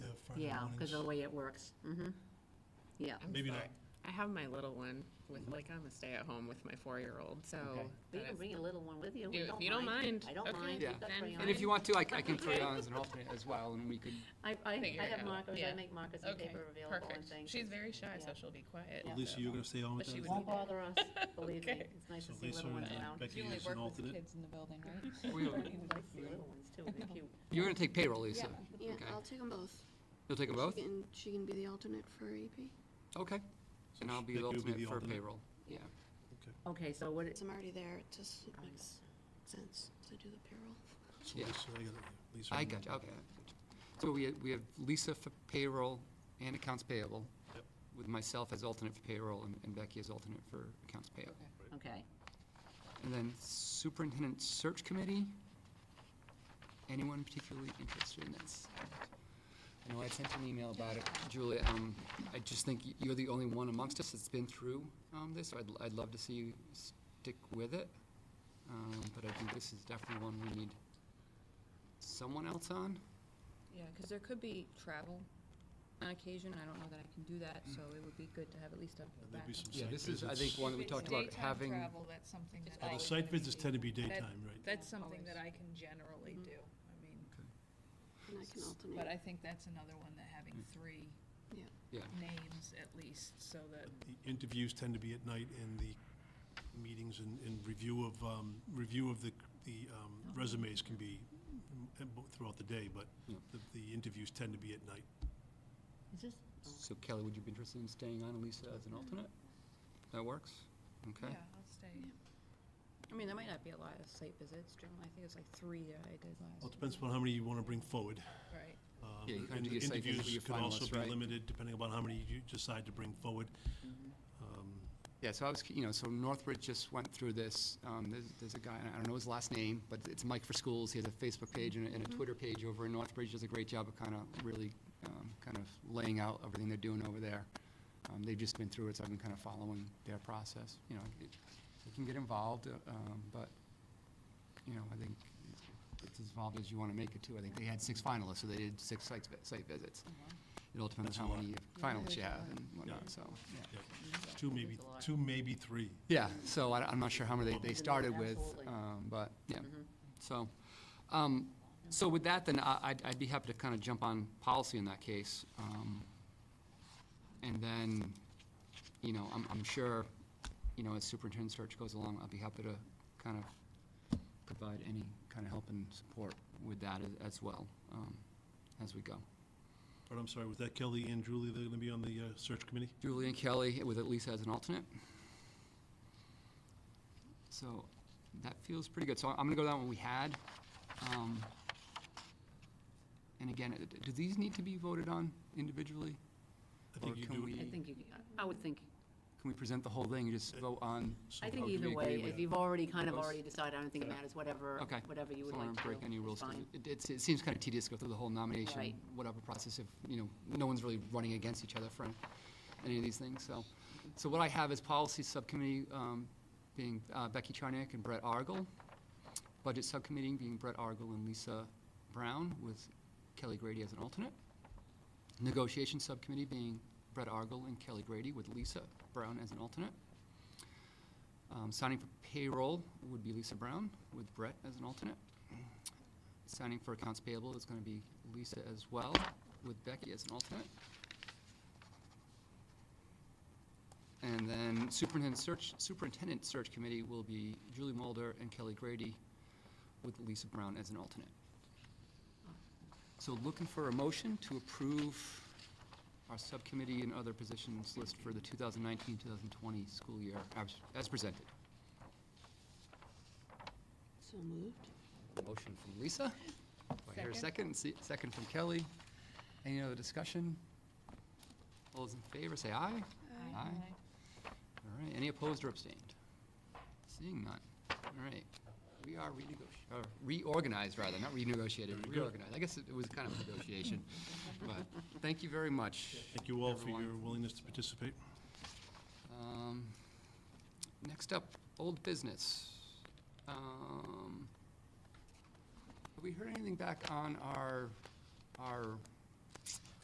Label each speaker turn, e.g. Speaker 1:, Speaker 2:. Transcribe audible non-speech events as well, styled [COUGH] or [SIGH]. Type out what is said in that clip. Speaker 1: Yeah, because of the
Speaker 2: mornings.
Speaker 1: way it works. Mm-hmm. Yeah.
Speaker 3: I'm
Speaker 2: Maybe
Speaker 3: sorry.
Speaker 2: not. Mm-hmm.
Speaker 3: I have my little one with, like, I'm a stay-at-home with my four-year-old, so.
Speaker 1: But you
Speaker 3: that
Speaker 1: can
Speaker 3: is-
Speaker 1: bring a little one with you. We
Speaker 3: If you don't mind.
Speaker 1: I don't
Speaker 3: Okay,
Speaker 1: mind.
Speaker 4: Yeah.
Speaker 1: We've got
Speaker 3: then
Speaker 1: crayons.
Speaker 4: And if you want to, I, I can throw you on as
Speaker 5: [LAUGHS]
Speaker 4: an alternate as well, and we could,
Speaker 1: I, I,
Speaker 3: Figure
Speaker 1: I
Speaker 3: it
Speaker 1: have
Speaker 3: out.
Speaker 1: markers, I
Speaker 3: Yeah.
Speaker 1: make markers and
Speaker 3: Okay,
Speaker 1: paper available and
Speaker 3: perfect.
Speaker 1: things.
Speaker 3: She's very shy,
Speaker 1: yeah.
Speaker 3: so she'll be quiet.
Speaker 1: Yeah.
Speaker 2: Lisa, you're gonna stay on with
Speaker 3: But she
Speaker 2: us?
Speaker 3: would
Speaker 1: Won't bother us, believe me.
Speaker 3: [LAUGHS] Okay.
Speaker 1: It's nice
Speaker 2: So
Speaker 1: to see
Speaker 2: Lisa
Speaker 1: little
Speaker 2: and
Speaker 1: ones around.
Speaker 2: Becky is an alternate.
Speaker 6: in the building, right?
Speaker 4: we don't-
Speaker 1: I see [LAUGHS] little ones too, they're cute.
Speaker 4: you're gonna take payroll, Lisa.
Speaker 5: Yeah,
Speaker 4: Okay.
Speaker 5: I'll take them both.
Speaker 4: You'll take them both?
Speaker 5: She can, she can be the alternate for E AP.
Speaker 4: Okay. And I'll be
Speaker 2: Becky
Speaker 4: the
Speaker 2: will be
Speaker 4: alternate
Speaker 2: the
Speaker 4: for
Speaker 2: alternate.
Speaker 4: payroll. Yeah.
Speaker 1: Okay, so what,
Speaker 5: Since I'm already there, it just makes sense to do the payroll. [LAUGHS]
Speaker 2: So
Speaker 4: Yeah.
Speaker 2: Lisa, I gotta- Lisa
Speaker 4: I
Speaker 2: and
Speaker 4: got you,
Speaker 2: Becky.
Speaker 4: okay. So we, we have Lisa for payroll and accounts payable,
Speaker 2: Yep.
Speaker 4: with myself as alternate for payroll and- and Becky as alternate for accounts payable.
Speaker 1: okay.
Speaker 4: And then superintendent search committee? Anyone particularly interested in this? I know I sent an email about it, Julia, um, I just think y- you're the only one amongst us that's been through, um, this, so I'd, I'd love to see you stick with it. Um, but I think this is definitely one we need someone else on.
Speaker 6: Yeah, because there could be travel on occasion, I don't know that I can do that, so it would be good to have at least a
Speaker 2: Mm. There'd
Speaker 6: backup.
Speaker 2: be some
Speaker 4: Yeah,
Speaker 2: site
Speaker 4: this is, I
Speaker 2: visits.
Speaker 4: think, one that we talked about having.
Speaker 7: Daytime travel, that's something that
Speaker 2: Oh,
Speaker 7: I.
Speaker 2: The
Speaker 7: can
Speaker 2: site visits
Speaker 7: see.
Speaker 2: tend to be
Speaker 7: That-
Speaker 2: daytime, right?
Speaker 7: That's something that I can generally
Speaker 5: Mhm.
Speaker 7: do, I mean,
Speaker 5: And I can
Speaker 7: but I
Speaker 5: alternate.
Speaker 7: think that's another one that having three
Speaker 5: Yeah.
Speaker 4: Yeah.
Speaker 7: names at least, so that
Speaker 2: The interviews tend to be at night and the meetings and, and review of, um, review of the, the um, resumes can be mm, bo- throughout the day, but
Speaker 4: Yeah.
Speaker 2: the, the interviews tend to be at night.
Speaker 1: Is this,
Speaker 4: So Kelly, would you be interested in staying on, Lisa, as an alternate? That works? Okay.
Speaker 7: Yeah, I'll stay.
Speaker 6: I mean, there might not be a lot of site visits, generally, I think it's like three that I did last.
Speaker 2: Well, it depends upon how many you want to bring forward.
Speaker 7: Right.
Speaker 2: Um,
Speaker 4: Yeah, you kinda
Speaker 2: and
Speaker 4: do
Speaker 2: the
Speaker 4: your site visit with
Speaker 2: Interviews
Speaker 4: your
Speaker 2: could also
Speaker 4: finalists,
Speaker 2: be
Speaker 4: right?
Speaker 2: limited depending upon how many you decide to bring forward. Um,
Speaker 4: Yeah, so I was, you know, so Northbridge just went through this, um, there's, there's a guy, and I don't know his last name, but it's Mike for Schools, he has a Facebook page and a,
Speaker 2: Mm-hmm.
Speaker 4: and a Twitter page over in Northbridge, does a great job of kind of really, um, kind of laying out everything they're doing over there. Um, they've just been through it, so I've been kind of following their process, you know, it, you can get involved, uh, um, but, you know, I think it's as involved as you want to make it too, I think they had six finalists, so they did six site, site visits. It all depends
Speaker 2: Oh, That's
Speaker 4: on
Speaker 2: a
Speaker 4: how
Speaker 2: lot.
Speaker 4: many finalists you have and whatnot,
Speaker 2: Yeah.
Speaker 4: so, yeah.
Speaker 2: yeah. Two, maybe, two, maybe three.
Speaker 4: Yeah, so I, am not sure how many they, they started with,
Speaker 1: Absolutely.
Speaker 4: um, but, yeah, so. Um, so with that, then I, I'd, I'd be happy to kind of jump on policy in that case. Um, and then, you know, I'm, I'm sure, you know, as superintendent search goes along, I'll be happy to kind of provide any kind of help and support with that as, as well, um, as we go.
Speaker 2: But I'm sorry, was that Kelly and Julie, they're going to be on the uh, search committee?
Speaker 4: Julie and Kelly with at least as an alternate. So that feels pretty good. So I'm gonna go down what we had. Um, And again, uh, do these need to be voted on individually?
Speaker 2: I think
Speaker 4: Or
Speaker 2: you
Speaker 4: can
Speaker 2: do.
Speaker 4: we-
Speaker 1: I think you, I would think,
Speaker 4: Can we present the whole thing, and
Speaker 2: Uh,
Speaker 4: just vote on?
Speaker 2: so-
Speaker 1: I think
Speaker 4: Oh, do we
Speaker 1: either
Speaker 4: agree
Speaker 1: way,
Speaker 4: with-
Speaker 1: if you've already, kind of
Speaker 4: Those?
Speaker 1: already decided, I don't think it matters, whatever,
Speaker 4: Okay.
Speaker 1: whatever you would
Speaker 4: So I
Speaker 1: like
Speaker 4: don't
Speaker 1: to do.
Speaker 4: wanna break any
Speaker 1: is
Speaker 4: rules. 'cause
Speaker 1: fine.
Speaker 4: It, it's- it seems kind of tedious to go through the whole nomination,
Speaker 1: Right.
Speaker 4: whatever process if, you know, no one's really running against each other for any of these things, so. So what I have is policy subcommittee, um, being uh, Becky Charnick and Brett Argel. Budget subcommittee being Brett Argel and Lisa Brown with Kelly Grady as an alternate. Negotiation subcommittee being Brett Argel and Kelly Grady with Lisa Brown as an alternate. Um, Signing for payroll would be Lisa Brown with Brett as an alternate. Signing for accounts payable is going to be Lisa as well, with Becky as an alternate. And then superintendent search, superintendent search committee will be Julie Mulder and Kelly Grady, with Lisa Brown as an alternate. So looking for a motion to approve our subcommittee and other positions list for the 2019-2020 school year as- as presented.
Speaker 5: So moved.
Speaker 4: Motion from Lisa. Do I hear a second? Se- Second from Kelly. Any other discussion? All those in favor, say aye. Aye. All right, any opposed or abstained? Seeing none. All right, we are renegoti- or reorganized, rather, not renegotiated, reorganized. I guess it it was kind of a negotiation, but thank you very much.
Speaker 2: Thank you all for
Speaker 4: everyone.
Speaker 2: your willingness to participate.
Speaker 4: Um, Next up, old business. Um, Have we heard anything back on our, our